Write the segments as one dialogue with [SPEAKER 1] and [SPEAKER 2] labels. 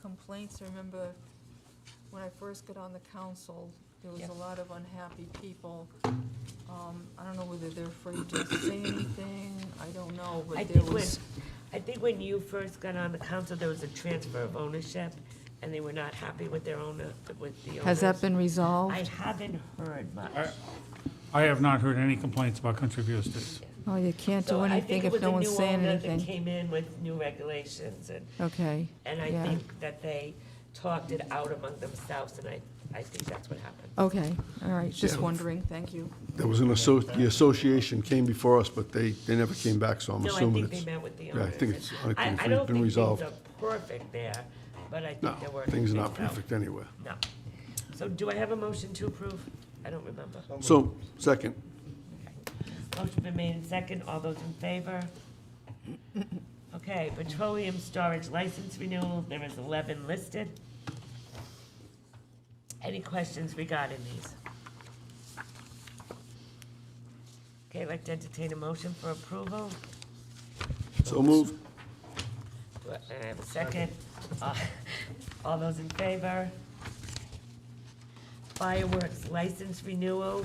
[SPEAKER 1] complaints, I remember when I first got on the council, there was
[SPEAKER 2] Yep.
[SPEAKER 1] a lot of unhappy people. Um, I don't know whether they're afraid to say anything, I don't know,
[SPEAKER 2] I
[SPEAKER 1] but there
[SPEAKER 2] think when,
[SPEAKER 1] was,
[SPEAKER 2] I think when you first got on the council, there was a transfer of ownership, and they were not happy with their owner, with the owners.
[SPEAKER 1] has that been resolved?
[SPEAKER 2] I haven't heard much.
[SPEAKER 3] I- I have not heard any complaints about country view estates.
[SPEAKER 1] Oh, you can't do
[SPEAKER 2] So I
[SPEAKER 1] anything
[SPEAKER 2] think it
[SPEAKER 1] if
[SPEAKER 2] was
[SPEAKER 1] no
[SPEAKER 2] a
[SPEAKER 1] one's
[SPEAKER 2] new
[SPEAKER 1] saying
[SPEAKER 2] owner that
[SPEAKER 1] anything.
[SPEAKER 2] came in with new regulations, and,
[SPEAKER 1] Okay.
[SPEAKER 2] and I
[SPEAKER 1] yeah.
[SPEAKER 2] think that they talked it out among themselves, and I, I think that's what happened.
[SPEAKER 1] Okay, all right, just
[SPEAKER 4] Yeah.
[SPEAKER 1] wondering, thank you.
[SPEAKER 4] There was an asso, the association came before us, but they, they never came back, so I'm
[SPEAKER 2] No, I
[SPEAKER 4] assuming
[SPEAKER 2] think they
[SPEAKER 4] it's.
[SPEAKER 2] met with the
[SPEAKER 4] yeah, I
[SPEAKER 2] owners.
[SPEAKER 4] think it's- I think
[SPEAKER 2] I-
[SPEAKER 4] it's
[SPEAKER 2] I don't
[SPEAKER 4] been
[SPEAKER 2] think things
[SPEAKER 4] resolved.
[SPEAKER 2] are perfect there, but I
[SPEAKER 4] No,
[SPEAKER 2] think there were.
[SPEAKER 4] things are not
[SPEAKER 2] fixed out.
[SPEAKER 4] perfect anywhere.
[SPEAKER 2] No. So do I have a motion to approve? I don't remember.
[SPEAKER 4] So, second,
[SPEAKER 2] Motion been made in second. All those in favor? Okay, petroleum storage license renewal, there is 11 listed. Any questions regarding these? Okay, I'd like to entertain a motion for approval.
[SPEAKER 4] so move.
[SPEAKER 2] Do I- And I have a second. Uh, All those in favor? Fireworks license renewal,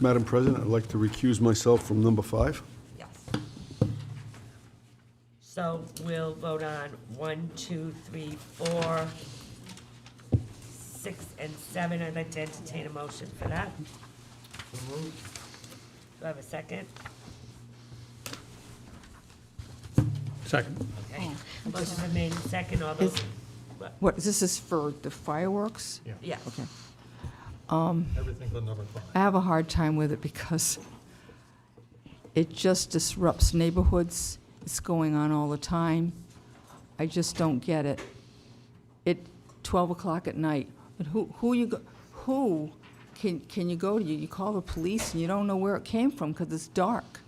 [SPEAKER 4] Madam President, I'd like to recuse myself from number five.
[SPEAKER 2] Yes. So we'll vote on one, two, three, four, six, and seven. I'd like to entertain a motion for that. Do I have a second?
[SPEAKER 3] Second.
[SPEAKER 2] Okay. Motion been made in second. All
[SPEAKER 1] Is-
[SPEAKER 2] those, what?
[SPEAKER 1] What, this is for the fireworks?
[SPEAKER 2] yeah.
[SPEAKER 1] Okay.
[SPEAKER 5] Everything but number five.
[SPEAKER 1] I have a hard time with it because it just disrupts neighborhoods. It's going on all the time. I just don't get it. It, 12 o'clock at night, and who, who you, go- who can, can you go to? You you call the police and you don't know where it came from because it's dark.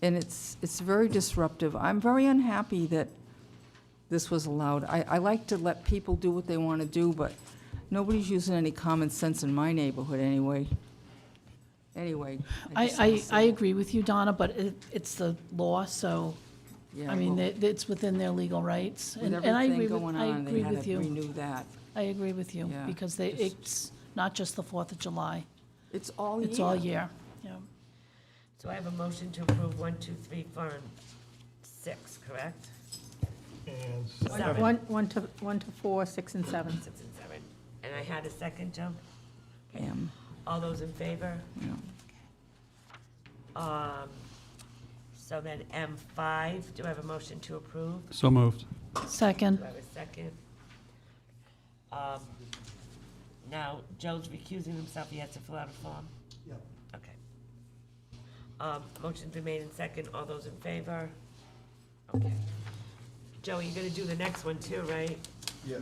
[SPEAKER 1] And it's, it's very disruptive. I'm very unhappy that this was allowed. I, I like to let people do what they want to do, but nobody's using any common sense in my neighborhood anyway. Anyway. just don't
[SPEAKER 6] I,
[SPEAKER 1] see
[SPEAKER 6] I, I
[SPEAKER 1] it.
[SPEAKER 6] agree with you, Donna, but it, it's the law, so,
[SPEAKER 1] Yeah,
[SPEAKER 6] I mean,
[SPEAKER 1] well,
[SPEAKER 6] it- it's within their legal rights.
[SPEAKER 1] With
[SPEAKER 6] And and I agree
[SPEAKER 1] everything
[SPEAKER 6] with,
[SPEAKER 1] going
[SPEAKER 6] I
[SPEAKER 1] on, they
[SPEAKER 6] agree
[SPEAKER 1] had
[SPEAKER 6] with
[SPEAKER 1] to
[SPEAKER 6] you.
[SPEAKER 1] renew that.
[SPEAKER 6] I agree with you,
[SPEAKER 1] Yeah.
[SPEAKER 6] because they, it's not just the Fourth of July,
[SPEAKER 1] It's all year.
[SPEAKER 6] it's all year. Yeah.
[SPEAKER 2] So I have a motion to approve one, two, three, four, and six, correct?
[SPEAKER 5] And
[SPEAKER 2] Seven.
[SPEAKER 7] One, one to, one to four, six and seven.
[SPEAKER 2] Six and seven. And I had a second, Joe?
[SPEAKER 1] Am,
[SPEAKER 2] All those in favor?
[SPEAKER 1] you know.
[SPEAKER 2] Um, so then M five, do I have a motion to approve?
[SPEAKER 3] So moved.
[SPEAKER 2] Do
[SPEAKER 6] Second,
[SPEAKER 2] I have a second? Um, now, Joe's recusing himself, he has to fill out a form? Yep. Okay. Um, motion's been made in second, all those in favor? Okay. Joey, you're gonna do the next one too, right? Yeah.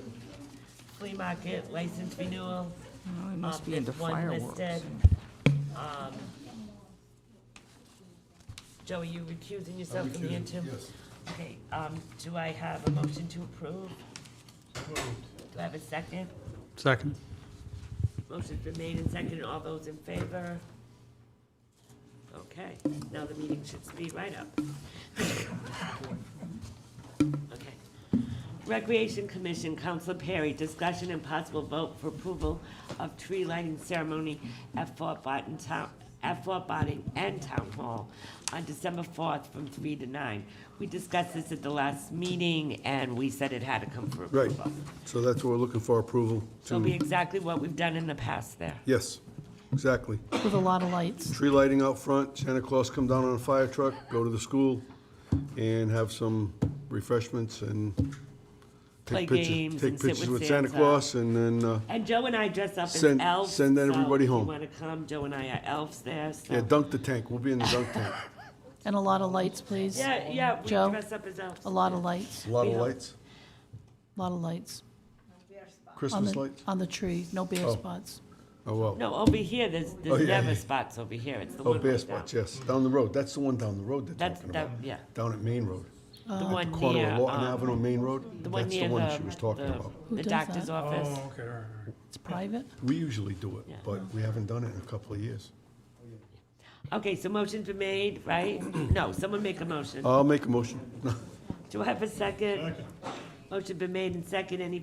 [SPEAKER 2] Flea market license renewal,
[SPEAKER 1] Well, It must
[SPEAKER 2] Um,
[SPEAKER 1] be into
[SPEAKER 2] there's one
[SPEAKER 1] fireworks.
[SPEAKER 2] listed. um, Joey, you recusing yourself from the interim? Okay, um, do I have a motion to approve? Do I have a second?
[SPEAKER 3] Second.
[SPEAKER 2] Motion's been made and seconded, all those in favor? Okay, now the meeting should speed right up. Okay. Recreation Commission, Counselor Perry, discussion and possible vote for approval of tree lighting ceremony at Fort Barton Town, at Fort Barton and Town Hall on December fourth from three to nine. We discussed this at the last meeting, and we said it had to come for
[SPEAKER 4] Right,
[SPEAKER 2] approval.
[SPEAKER 4] so that's what we're looking for approval
[SPEAKER 2] So it'll be
[SPEAKER 4] to,
[SPEAKER 2] exactly what we've done in the past there.
[SPEAKER 4] yes, exactly.
[SPEAKER 6] with a lot of lights.
[SPEAKER 4] Tree lighting out front, Santa Claus come down on a fire truck, go to the school, and have some refreshments and
[SPEAKER 2] Play
[SPEAKER 4] take
[SPEAKER 2] games
[SPEAKER 4] pictures,
[SPEAKER 2] and
[SPEAKER 4] take
[SPEAKER 2] sit
[SPEAKER 4] pictures
[SPEAKER 2] with
[SPEAKER 4] with Santa
[SPEAKER 2] Santa.
[SPEAKER 4] Claus, and then, uh,
[SPEAKER 2] And Joe and I dress up as
[SPEAKER 4] Send-
[SPEAKER 2] elves.
[SPEAKER 4] send
[SPEAKER 2] so
[SPEAKER 4] everybody
[SPEAKER 2] If you
[SPEAKER 4] home.
[SPEAKER 2] want to come, Joe and I are elves there, so.
[SPEAKER 4] yeah, dunk the tank, we'll be in the dunk tank.
[SPEAKER 6] And a lot of lights, please.
[SPEAKER 2] Yeah, yeah, we
[SPEAKER 6] Joe?
[SPEAKER 2] dress up as elves.
[SPEAKER 6] A lot of lights,
[SPEAKER 4] A lot of
[SPEAKER 2] Yeah.
[SPEAKER 4] lights,
[SPEAKER 6] a lot of lights. On
[SPEAKER 4] Christmas
[SPEAKER 6] the-
[SPEAKER 4] lights,
[SPEAKER 6] On the tree, no bare
[SPEAKER 4] Oh.
[SPEAKER 6] spots.
[SPEAKER 4] oh, wow.
[SPEAKER 2] No, over here, there's,
[SPEAKER 4] Oh,
[SPEAKER 2] there's
[SPEAKER 4] yeah,
[SPEAKER 2] never
[SPEAKER 4] yeah.
[SPEAKER 2] spots over here, it's the
[SPEAKER 4] Oh,
[SPEAKER 2] one right
[SPEAKER 4] Bear
[SPEAKER 2] down.
[SPEAKER 4] Spots, yes, down the road, that's the one down the road they're
[SPEAKER 2] That's,
[SPEAKER 4] talking
[SPEAKER 2] that,
[SPEAKER 4] about,
[SPEAKER 2] yeah,
[SPEAKER 4] down at Main Road.
[SPEAKER 2] the
[SPEAKER 6] Uh-huh.
[SPEAKER 2] one
[SPEAKER 4] Corner
[SPEAKER 2] near,
[SPEAKER 4] of Lawton
[SPEAKER 2] um,
[SPEAKER 4] Avenue, Main Road,
[SPEAKER 2] the one
[SPEAKER 4] that's the
[SPEAKER 2] near
[SPEAKER 4] one
[SPEAKER 2] the,
[SPEAKER 4] she was talking
[SPEAKER 2] the-
[SPEAKER 4] about.
[SPEAKER 6] Who
[SPEAKER 2] the
[SPEAKER 6] does
[SPEAKER 2] doctor's
[SPEAKER 6] that?
[SPEAKER 3] Oh,
[SPEAKER 2] office.
[SPEAKER 3] okay, all right, all right.
[SPEAKER 6] It's private.
[SPEAKER 4] We usually do it,
[SPEAKER 2] Yeah.
[SPEAKER 4] but we haven't done it in a couple of years.
[SPEAKER 6] Oh.
[SPEAKER 2] Okay, so motion's been made, right? No, someone make a
[SPEAKER 4] Uh,
[SPEAKER 2] motion.
[SPEAKER 4] I'll make a motion.
[SPEAKER 2] Do I have a second? Motion been made and second, any